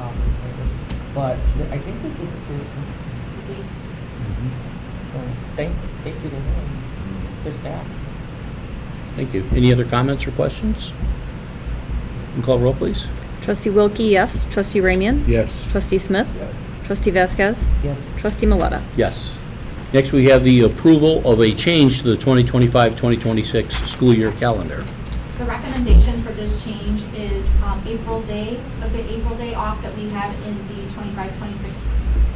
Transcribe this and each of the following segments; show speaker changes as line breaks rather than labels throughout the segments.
Um, but th- I think this is the first one. So thank, thank you to them, their staff.
Thank you. Any other comments or questions? Can you call roll, please?
Trustee Wilkie, yes. Trustee Ramian?
Yes.
Trustee Smith?
Yes.
Trustee Vasquez?
Yes,
Trustee Maleta?
Yes. Next, we have the approval of a change to the 2025-2026 school year calendar.
The recommendation for this change is um, April Day, of the April Day off that we have in the 25-26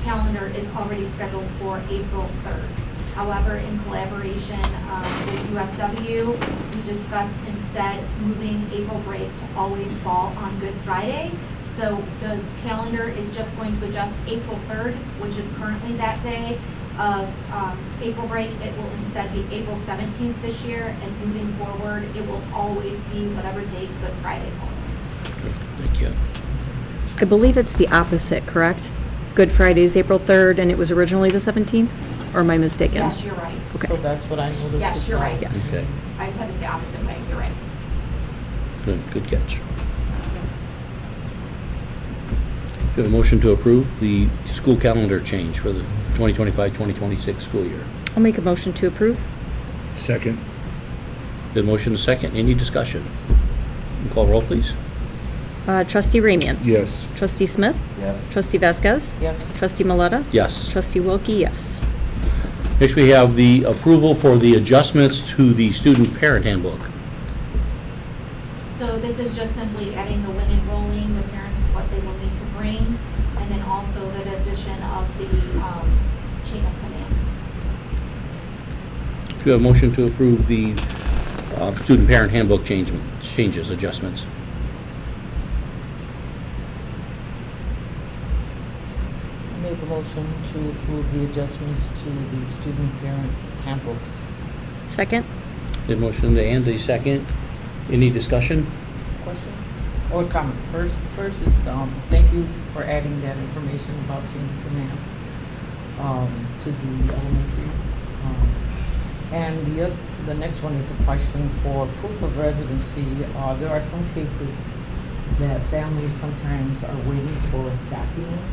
calendar is already scheduled for April 3rd. However, in collaboration um, with USW, we discussed instead moving April break to always fall on Good Friday. So the calendar is just going to adjust April 3rd, which is currently that day of um, April break. It will instead be April 17th this year, and moving forward, it will always be whatever date Good Friday falls on.
Thank you.
I believe it's the opposite, correct? Good Friday is April 3rd, and it was originally the 17th? Or am I mistaken?
Yes, you're right.
Okay.
so that's what I noticed.
Yes,
as
you're
well.
right.
Yes.
Okay.
I said it the opposite way, you're right.
Good good catch. Do you have a motion to approve the school calendar change for the 2025-2026 school year?
I'll make a motion to approve.
Second.
The motion is second. Any discussion? Can you call roll, please?
Uh, Trustee Ramian?
Yes.
Trustee Smith?
Yes.
Trustee Vasquez?
Yes,
Trustee Maleta?
Yes.
Trustee Wilkie, yes.
Next, we have the approval for the adjustments to the student parent handbook.
So this is just simply adding the when enrolling, the parents, what they will need to bring, and then also the addition of the um, chain of command.
Do you have a motion to approve the uh, student parent handbook change- changes, adjustments?
I make a motion to approve the adjustments to the student parent handbooks.
Second?
The motion and a second. Any discussion?
Question or comment? First, first is, um, thank you for adding that information about chain of command, um, to the elementary. Um, And the, oth- the next one is a question for proof of residency. Uh, there are some cases that families sometimes are waiting for documents.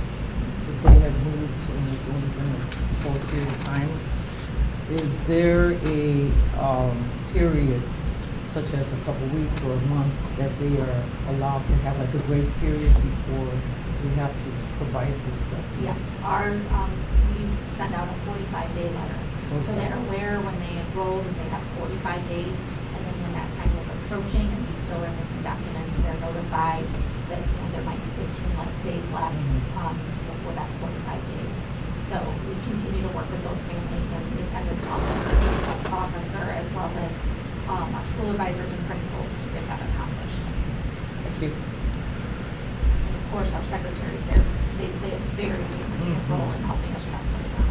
If they have moved and it's only been a short period of time. Is there a, um, period such as a couple weeks or a month, that they are allowed to have like a grace period before we have to provide those documents?
Yes, our, um, we send out a forty-five day letter. So
Okay.
they're aware when they enroll that they have forty-five days, and then when that time is approaching and we still are missing documents, they're notified that you know, there might be fifteen like days left,
Mhm.
um, before that forty-five days. So we continue to work with those families and the attendance officer, the officer, as well as, um, our school advisors and principals to get that accomplished.
Thank you.
And of course, our secretaries, they're, they play a very significant role in helping us track this down.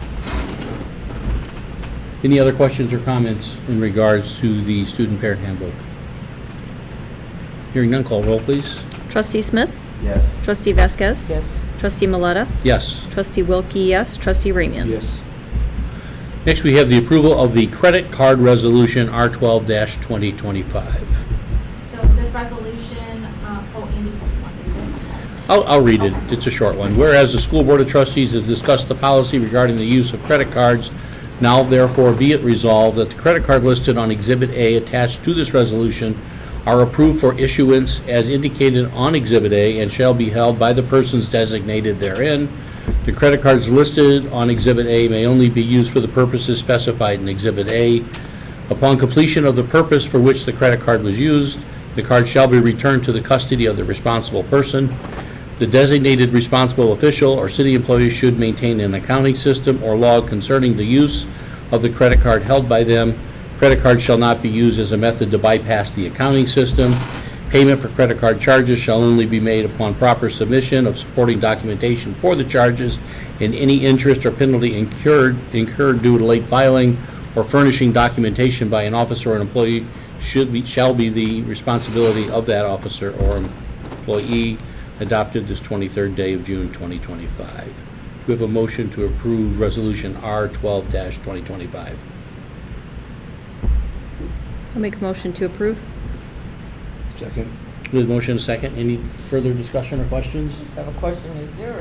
Any other questions or comments in regards to the student parent handbook? Hearing none, call roll, please.
Trustee Smith?
Yes.
Trustee Vasquez?
Yes,
Trustee Maleta?
Yes.
Trustee Wilkie, yes. Trustee Ramian?
Yes.
Next, we have the approval of the credit card resolution R12-2025.
So this resolution, uh, oh, Andy, you want to do this?
I'll, I'll read it. It's a short one. Whereas the School Board of Trustees has discussed the policy regarding the use of credit cards, now therefore be it resolved that the credit card listed on Exhibit A attached to this resolution are approved for issuance as indicated on Exhibit A and shall be held by the persons designated therein. The credit cards listed on Exhibit A may only be used for the purposes specified in Exhibit A. Upon completion of the purpose for which the credit card was used, the card shall be returned to the custody of the responsible person. The designated responsible official or city employee should maintain an accounting system or log concerning the use of the credit card held by them. Credit cards shall not be used as a method to bypass the accounting system. Payment for credit card charges shall only be made upon proper submission of supporting documentation for the charges, and any interest or penalty incurred, incurred due to late filing or furnishing documentation by an officer or an employee should be, shall be the responsibility of that officer or employee adopted this 23rd day of June 2025. Do we have a motion to approve Resolution R12-2025?
I'll make a motion to approve.
Second.
With motion second, any further discussion or questions?
just have a question, is there